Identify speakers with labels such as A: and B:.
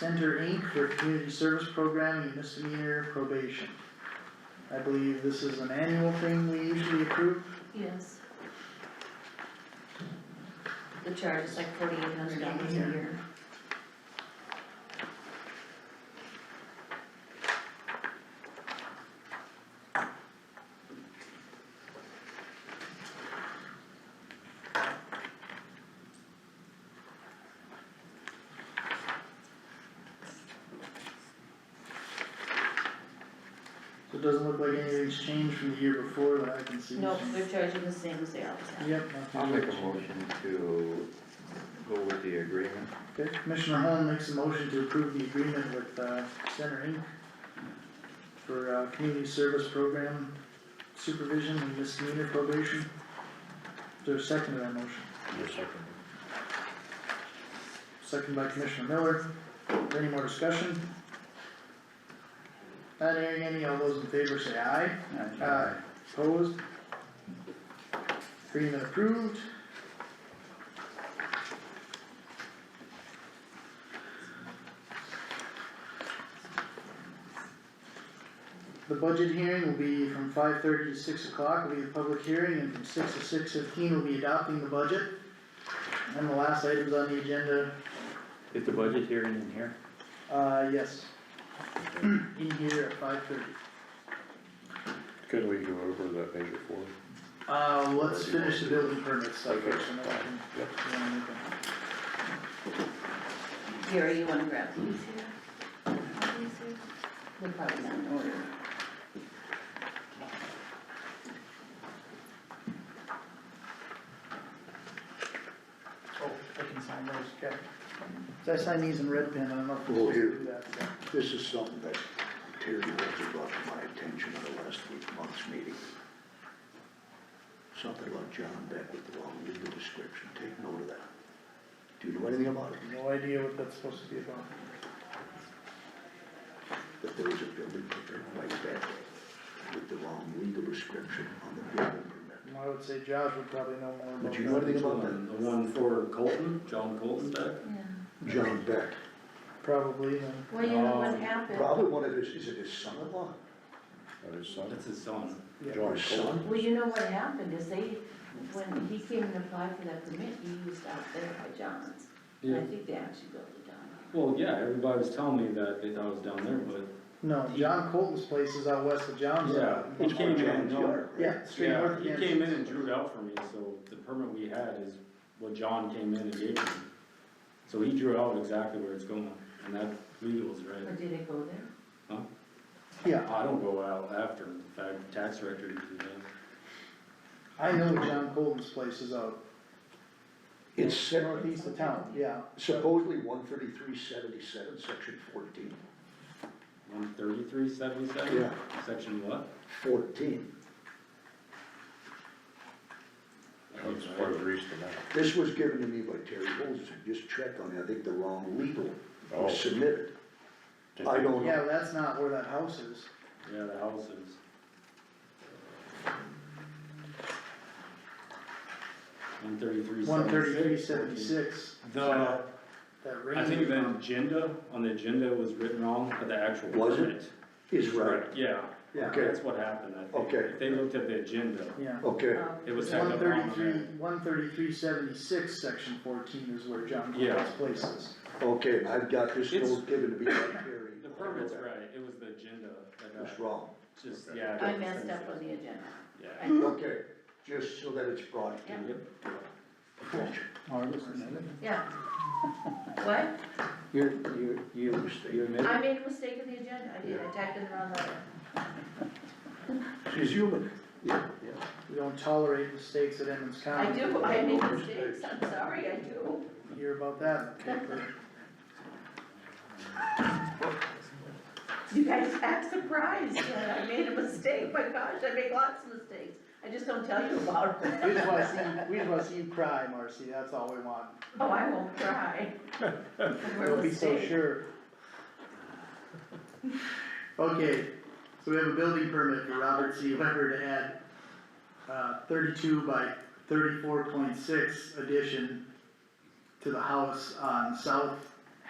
A: Center Inc. for Community Service Program and misdemeanor probation. I believe this is an annual thing we usually approve.
B: Yes. The charge is like forty-eight hundred dollars a
A: Yeah.
B: year.
A: So it doesn't look like anything's changed from the year before that I can see.
B: Nope, we're charging the same as they always have.
A: Yep.
C: I'll make a
A: motion.
C: motion to go with the agreement.
A: Okay, Commissioner Holm makes a motion to approve the agreement with, uh, Center Inc. For, uh, community service program supervision and misdemeanor probation. Is there a second to that motion? Second by Commissioner Miller. Is there Any more discussion? Not hearing any, all those in favor say aye.
D: Uh,
A: Aye. Opposed? Agreement approved. The budget hearing will be from five thirty to six o'clock, will be the public hearing, and from six to six fifteen will be adopting the budget. And the last items on the agenda,
E: Is the budget hearing in here?
A: uh, yes. In here at five thirty.
F: Could we go over that major four?
A: Uh, let's finish the building permit stuff
F: Okay.
A: first, and then we
F: Yep.
A: can.
B: Gary, you wanna grab these here? Are these here? They're probably not in order.
A: Oh, I can sign those, okay. So I sign these in red pen, I don't know if we're
G: Oh,
A: supposed to
G: here.
A: do that.
G: This is something that Terry Rhodes brought to my attention at the last week, month's meeting. Something about John Beck with the wrong legal description, take note of that. Do you know anything about it?
A: No idea what that's supposed to be about.
G: That there was a building permit like that, with the wrong legal description on the building permit.
A: I would say Josh would probably know more about that.
G: But you know anything about that?
D: The one for Colton, John Colton back?
B: Yeah.
G: John Beck,
A: Probably, then.
B: Well, you know what
D: Um,
B: happened?
G: probably one of his, is it his son-in-law?
F: That is something.
D: That's his son.
G: Or
F: John
G: his
F: Cole.
G: son?
B: Well, you know what happened is they, when he came and applied for that permit, he used out there by John's. And I think they actually built it down.
D: Well, yeah, everybody was telling me that they thought it was down there, but,
A: no, John Colton's place is out west of John's.
D: yeah. He
G: It's
D: came
G: on
D: in,
G: John's
D: and-
G: yard, right?
A: Yeah, straight
D: yeah,
A: north of
D: he
A: Kansas.
D: came in and drew it out for me, so the permit we had is what John came in and gave me. So he drew out exactly where it's going, and that legal is
B: Or
D: right.
B: did it go there?
A: Yeah,
D: I don't go out after, the fact, tax director did that.
A: I know John Colton's place is out
G: It's set-
A: northeast of town, yeah.
G: supposedly one thirty-three seventy-seven, section fourteen.
D: One thirty-three seventy-seven, section what?
G: Fourteen.
F: That's farther east than that.
G: This was given to me by Terry Holzer, just check on it, I think the wrong legal
F: Oh.
G: was submitted.
F: Did
G: I
F: you-
G: don't
A: Yeah,
G: know,
A: that's not where that house is.
D: Yeah, the houses. One thirty-three seventy-six.
A: One thirty-three seventy-six,
D: The,
A: that
D: I
A: range.
D: think the agenda, on the agenda was written wrong, but the actual
G: Was it?
D: permit.
G: is right,
D: Correct, Yeah,
G: Yeah.
D: that's what happened, I think.
G: Okay.
D: If they looked at the agenda,
A: Yeah.
G: okay,
D: it
B: Um,
D: was typed
A: One
D: up wrong on
A: thirty-three, one thirty-three seventy-six, section fourteen is where John
D: Yeah.
A: Colton's place is.
G: okay, and I've got this
D: It's-
G: note given to me by Terry.
D: that. The permit's right, it was the agenda that
G: It's
D: got,
G: wrong,
D: just, yeah.
B: I messed up on the agenda.
D: Yeah.
B: I-
G: okay, just so that it's brought to
B: Yeah.
G: your attention.
B: Yeah. What?
C: You, you, you admit?
B: I made a mistake in the agenda. I did. I typed in the wrong letter.
G: She's human, yeah, yeah.
A: We don't tolerate mistakes at Emmons
B: I
A: County.
B: do, I make mistakes. I'm sorry, I do.
A: Hear about that in the paper.
B: You guys act surprised that I made a mistake. My gosh, I make lots of mistakes. I just don't tell you about them.
A: We just wanna see, you- we just wanna see you cry, Marcy, that's all we want.
B: Oh, I won't cry. We're
A: Don't be so
B: mistaken.
A: sure. Okay, so we have a building permit for Robert C. Weber to add, uh, thirty-two by thirty-four point six addition to the house on South